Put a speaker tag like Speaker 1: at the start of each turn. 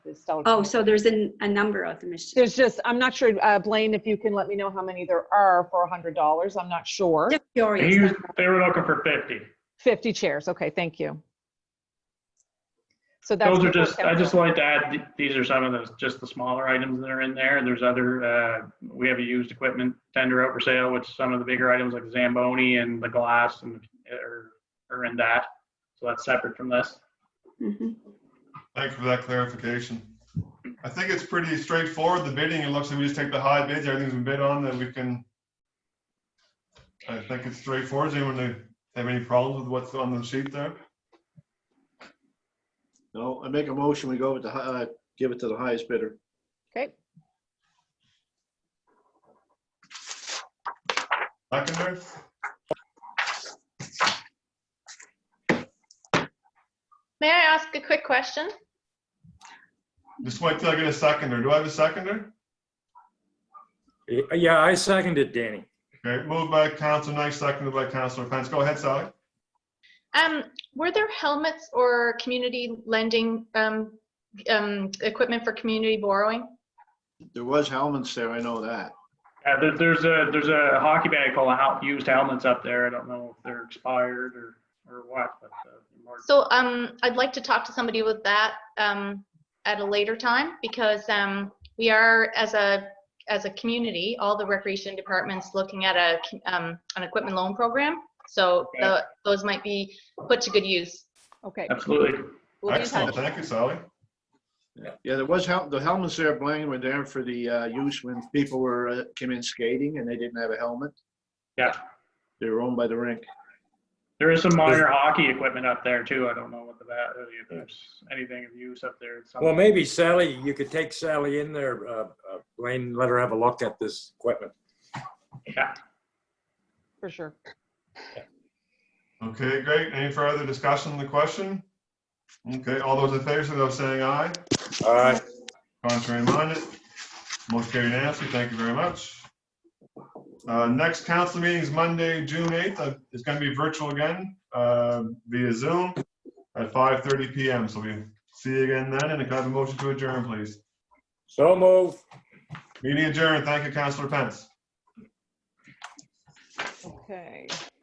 Speaker 1: is still.
Speaker 2: Oh, so there's an, a number of them. It's-
Speaker 1: There's just, I'm not sure, uh, Blaine, if you can let me know how many there are for a hundred dollars. I'm not sure.
Speaker 2: Just
Speaker 3: He
Speaker 2: curious.
Speaker 3: was, they were looking for 50.
Speaker 1: Fifty chairs. Okay, thank you. So that's.
Speaker 3: Those are
Speaker 1: before
Speaker 3: just, I just
Speaker 1: capital.
Speaker 3: like to add, th- these are some of those, just the smaller items that are in there. And there's other, uh, we have a used equipment tender out for sale, which some of the bigger items like Zamboni and the glass and, are, are in that. So that's separate from this.
Speaker 2: Mhm.
Speaker 4: Thank you for that clarification. I think it's pretty straightforward, the bidding. It looks like we just take the high bids, everything's been bid on, then we can. I think it's straightforward. Does anyone have any problems with what's on the sheet there?
Speaker 5: No, I make a motion, we go with the, hi- uh, give it to the highest bidder.
Speaker 1: Okay,
Speaker 4: Seconder?
Speaker 6: May I ask a quick question?
Speaker 4: Just wait till I get a seconder. Do I have a seconder?
Speaker 7: Yeah, I seconded Danny.
Speaker 4: Okay, moved by Council Knight, seconded by Councilor Pence. Go ahead, Sally.
Speaker 6: Um, were there helmets or community lending, um, um, equipment for community borrowing?
Speaker 5: There was helmets there, I know that.
Speaker 3: Uh, there, there's a, there's a hockey bag full of hel- used helmets up there. I don't know if they're expired or, or what, but. uh, they're more-
Speaker 6: So, um, I'd like to talk to somebody with that, um, at a later time because, um, we are as a, as a community, all the recreation departments looking at a, um, an equipment loan program. So
Speaker 3: Okay.
Speaker 6: tho- those might be put to good use.
Speaker 1: okay.
Speaker 3: Absolutely.
Speaker 1: We'll be in
Speaker 4: Excellent.
Speaker 1: touch.
Speaker 4: Thank you, Sally.
Speaker 5: Yeah, there was hel, the helmets there, Blaine, were there for the, uh, use when people were, uh, came in skating and they didn't have a helmet.
Speaker 3: Yeah.
Speaker 5: They were owned by the rink.
Speaker 3: There is some minor hockey equipment up there too. I don't know what the, va- uh, if there's anything of use up there. It's
Speaker 7: Well,
Speaker 3: something-
Speaker 7: maybe Sally, you could take Sally in there, uh, uh, Blaine, let her have a look at this equipment.
Speaker 3: Yeah.
Speaker 1: For sure.
Speaker 4: Okay, great. Any further discussion on the question? Okay, all those in favor, so saying aye.
Speaker 7: All right,
Speaker 4: Contrary minded, motion carried unanimously. Thank you very much. Uh, Next council meeting is Monday, June 8th. Uh, It's going to be virtual again uh, via Zoom at 5:30 PM. So we see you again then. And if I have a motion to adjourn, please.
Speaker 7: so move.
Speaker 4: Meeting adjourned. Thank you, Councilor Pence.
Speaker 1: Okay.